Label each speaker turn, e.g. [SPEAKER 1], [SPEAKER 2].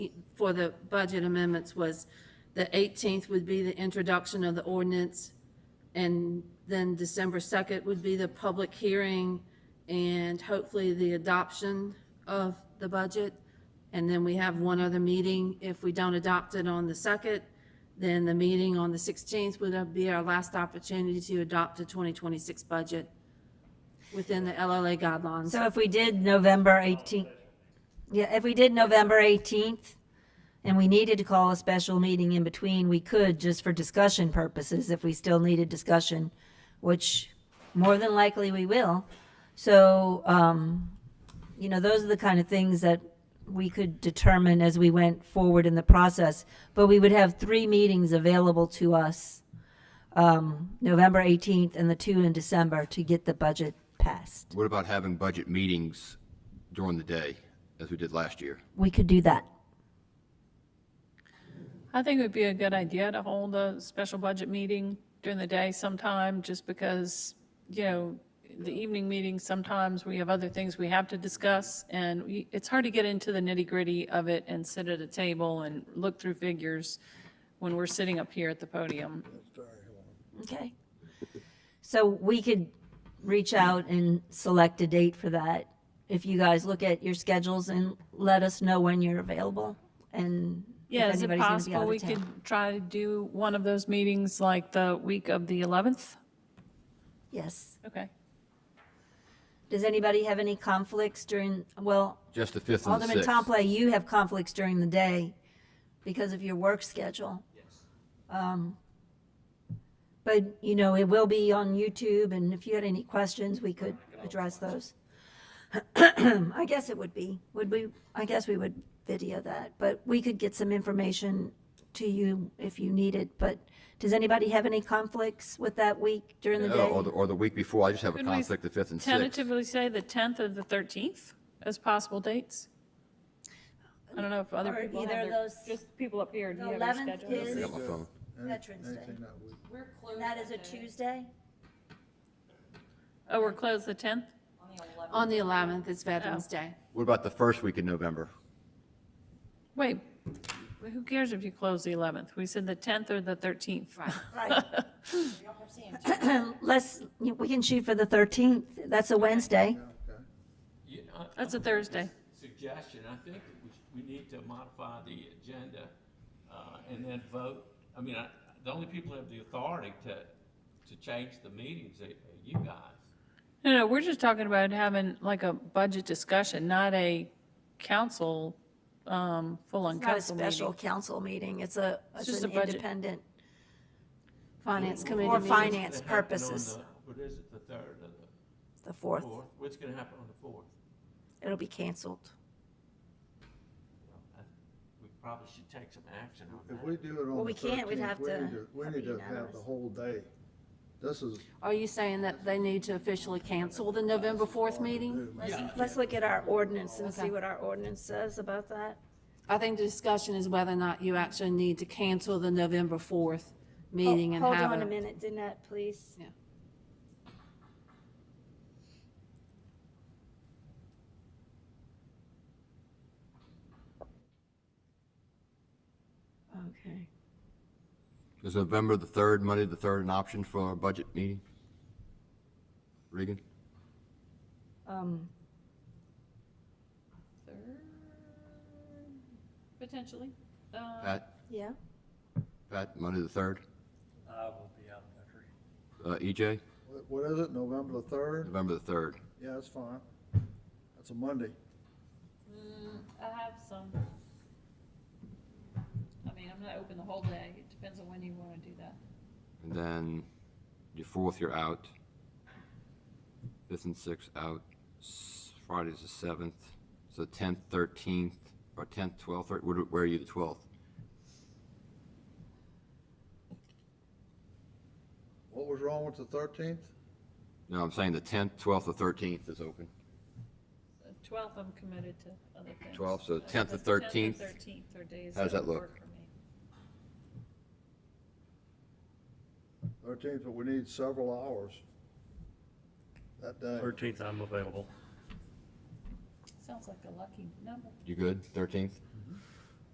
[SPEAKER 1] for the budget amendments was the 18th would be the introduction of the ordinance, and then December 2nd would be the public hearing and hopefully the adoption of the budget. And then we have one other meeting. If we don't adopt it on the 2nd, then the meeting on the 16th would be our last opportunity to adopt the 2026 budget within the LLA guidelines.
[SPEAKER 2] So if we did November 18th, yeah, if we did November 18th, and we needed to call a special meeting in between, we could, just for discussion purposes, if we still needed discussion, which more than likely we will. So, um, you know, those are the kind of things that we could determine as we went forward in the process. But we would have three meetings available to us, um, November 18th and the two in December, to get the budget passed.
[SPEAKER 3] What about having budget meetings during the day, as we did last year?
[SPEAKER 2] We could do that.
[SPEAKER 4] I think it would be a good idea to hold a special budget meeting during the day sometime, just because, you know, the evening meetings, sometimes we have other things we have to discuss, and we- it's hard to get into the nitty-gritty of it and sit at a table and look through figures when we're sitting up here at the podium.
[SPEAKER 2] Okay. So we could reach out and select a date for that. If you guys look at your schedules and let us know when you're available and if
[SPEAKER 4] Yeah, is
[SPEAKER 2] anybody's
[SPEAKER 4] it
[SPEAKER 2] gonna be out
[SPEAKER 4] possible
[SPEAKER 2] of
[SPEAKER 4] we
[SPEAKER 2] town.
[SPEAKER 4] could try to do one of those meetings like the week of the 11th?
[SPEAKER 2] Yes.
[SPEAKER 4] Okay.
[SPEAKER 2] Does anybody have any conflicts during, well,
[SPEAKER 3] Just the 5th and the 6th?
[SPEAKER 2] Alderman Tomplay, you have conflicts during the day because of your work schedule. Yes. But, you know, it will be on YouTube, and if you had any questions, we could address those. I guess it would be, would we, I guess we would video that, but we could get some information to you if you need it, but does anybody have any conflicts with that week during the
[SPEAKER 3] Oh, Or
[SPEAKER 2] day?
[SPEAKER 3] the, or the week before, I just have a
[SPEAKER 4] Could we
[SPEAKER 3] conflict, the 5th and 6th.
[SPEAKER 4] Tentatively say the 10th or the 13th as possible dates? I don't know if other
[SPEAKER 2] Or
[SPEAKER 4] people have
[SPEAKER 2] either of
[SPEAKER 4] their-
[SPEAKER 2] those-
[SPEAKER 4] Just people up here, do
[SPEAKER 2] The
[SPEAKER 4] you have your
[SPEAKER 2] 11th
[SPEAKER 4] schedule?
[SPEAKER 3] I
[SPEAKER 2] is
[SPEAKER 3] got my phone.
[SPEAKER 2] Veterans Day.
[SPEAKER 5] Anything that we-
[SPEAKER 2] That is a Tuesday?
[SPEAKER 4] Oh, we're closed the 10th?
[SPEAKER 1] On the 11th is Veterans
[SPEAKER 2] Oh.
[SPEAKER 1] Day.
[SPEAKER 3] What about the first week in November?
[SPEAKER 4] Wait, who cares if you close the 11th? We said the 10th or the 13th.
[SPEAKER 1] Right.
[SPEAKER 2] Right. Let's, we can shoot for the 13th. That's a Wednesday.
[SPEAKER 5] okay.
[SPEAKER 6] Yeah, I-
[SPEAKER 4] That's a
[SPEAKER 6] I'm-
[SPEAKER 4] Thursday.
[SPEAKER 6] Suggestion, I think that we, sh- we need to modify the agenda, uh, and then vote. I mean, I, the only people who have the authority to, to change the meetings are are you guys.
[SPEAKER 4] No, no, we're just talking about having like a budget discussion, not a council, um, full-on
[SPEAKER 2] It's not a
[SPEAKER 4] council
[SPEAKER 2] special
[SPEAKER 4] meeting.
[SPEAKER 2] council meeting. It's a, it's
[SPEAKER 4] just
[SPEAKER 2] an
[SPEAKER 4] a budget.
[SPEAKER 2] independent.
[SPEAKER 1] Finance Committee
[SPEAKER 2] Or
[SPEAKER 1] meeting.
[SPEAKER 2] finance.
[SPEAKER 6] It's
[SPEAKER 2] It's
[SPEAKER 6] gonna happen on
[SPEAKER 2] purposes.
[SPEAKER 6] the- What is it, the third or
[SPEAKER 2] The
[SPEAKER 6] the
[SPEAKER 2] fourth,
[SPEAKER 6] fourth? What's gonna happen on the fourth?
[SPEAKER 2] it'll be canceled.
[SPEAKER 6] I- We probably should take some action on that.
[SPEAKER 5] If we do it
[SPEAKER 2] Well,
[SPEAKER 5] on
[SPEAKER 2] we
[SPEAKER 5] the
[SPEAKER 2] can't.
[SPEAKER 5] thirteenth,
[SPEAKER 2] We'd
[SPEAKER 5] we
[SPEAKER 2] have to
[SPEAKER 5] need to, we
[SPEAKER 2] have
[SPEAKER 5] need
[SPEAKER 2] it
[SPEAKER 5] to have
[SPEAKER 2] unanimous.
[SPEAKER 5] the whole day. This is.
[SPEAKER 1] Are you saying that they need to officially cancel the November 4th
[SPEAKER 5] uh,
[SPEAKER 1] meeting?
[SPEAKER 2] Let's, let's look at our ordinance and see what our ordinance says about that.
[SPEAKER 1] I think the discussion is whether or not you actually need to cancel the November 4th meeting and
[SPEAKER 2] Oh, Hold
[SPEAKER 1] have
[SPEAKER 2] on a
[SPEAKER 1] a,
[SPEAKER 2] minute, Danette, please.
[SPEAKER 1] Yeah.
[SPEAKER 2] Okay.
[SPEAKER 3] Is November the 3rd, Monday the 3rd, an option for our budget meeting? Regan?
[SPEAKER 2] Um,
[SPEAKER 4] Potentially.
[SPEAKER 3] Pat?
[SPEAKER 2] yeah.
[SPEAKER 3] Pat, Monday the 3rd?
[SPEAKER 7] I will be out of country.
[SPEAKER 3] Uh, EJ?
[SPEAKER 5] What- What is it, November the third?
[SPEAKER 3] November the 3rd.
[SPEAKER 5] Yeah, that's fine. That's a Monday.
[SPEAKER 4] I have some. I mean, I'm not open the whole day. It depends on when you want to do that.
[SPEAKER 3] And then your 4th, you're out. 5th and 6th, out. S- Friday's the 7th. So 10th, 13th, or 10th, 12th, or where- where are you the 12th?
[SPEAKER 5] What was wrong with the thirteenth?
[SPEAKER 3] No, I'm saying the 10th, 12th, or 13th is open.
[SPEAKER 4] The 12th, I'm committed to other things.
[SPEAKER 3] 12th, so
[SPEAKER 4] Uh,
[SPEAKER 3] 10th or
[SPEAKER 4] the 10th
[SPEAKER 3] 13th?
[SPEAKER 4] or 13th are days
[SPEAKER 3] How does
[SPEAKER 4] that
[SPEAKER 3] that look?
[SPEAKER 4] work for me.
[SPEAKER 5] Thirteenth, but we need several hours that day.
[SPEAKER 7] Thirteenth, I'm available.
[SPEAKER 4] Sounds like a lucky number.
[SPEAKER 3] You good, 13th?